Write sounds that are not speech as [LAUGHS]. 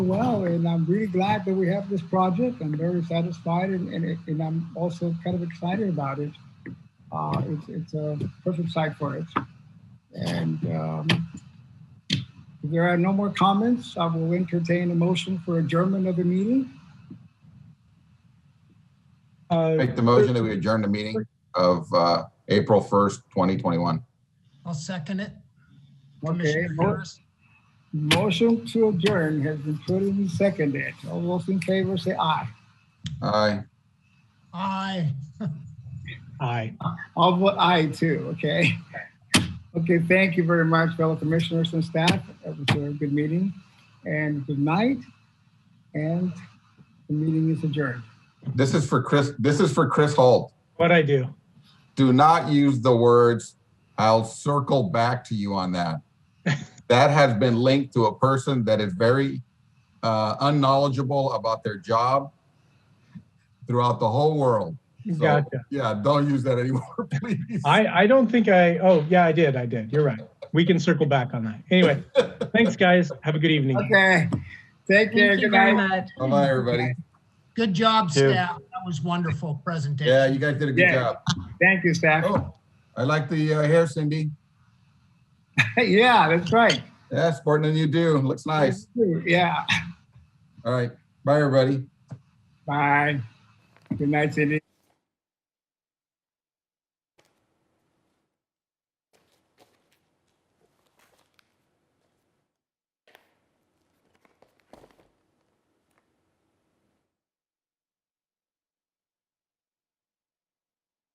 well, and I'm really glad that we have this project. I'm very satisfied, and, and, it- and I'm also kind of excited about it. Uh, it's, it's a perfect site for it. And um, if there are no more comments, I will entertain a motion for adjournment of the meeting. Uh, Make the motion that we adjourn the meeting of uh, April 1st, 2021. I'll second it. Okay, Commissioner mo- Harris. motion to adjourn has been put and seconded. All those in favor say aye. Aye. Aye. aye. I'll vote aye too, okay? Okay, thank you very much, fellow commissioners and staff. It was a good meeting and good night. And the meeting is adjourned. This is for Chris, this is for Chris Holt. What I do? Do not use the words, I'll circle back to you [LAUGHS] on that. That has been linked to a person that is very uh, unknowledgeable about their job throughout the whole world. So, Gotcha. Yeah, don't use that anymore, [LAUGHS] please. I, I don't think I, oh, yeah, I did. I did. You're right. We can circle back on that. [LAUGHS] Anyway, thanks, guys. Have a good evening. Okay, take care, Thank you good very night. much. Bye-bye, everybody. Good job, Two. staff. That was wonderful presentation. Yeah, you guys did a good Yeah. job. Thank you, staff. [LAUGHS] Oh, I like the uh, hair, Cindy. Yeah, that's right. Yeah, sporting than you do. Looks nice. Yeah, All right. Bye, everybody. bye. Good night, Cindy.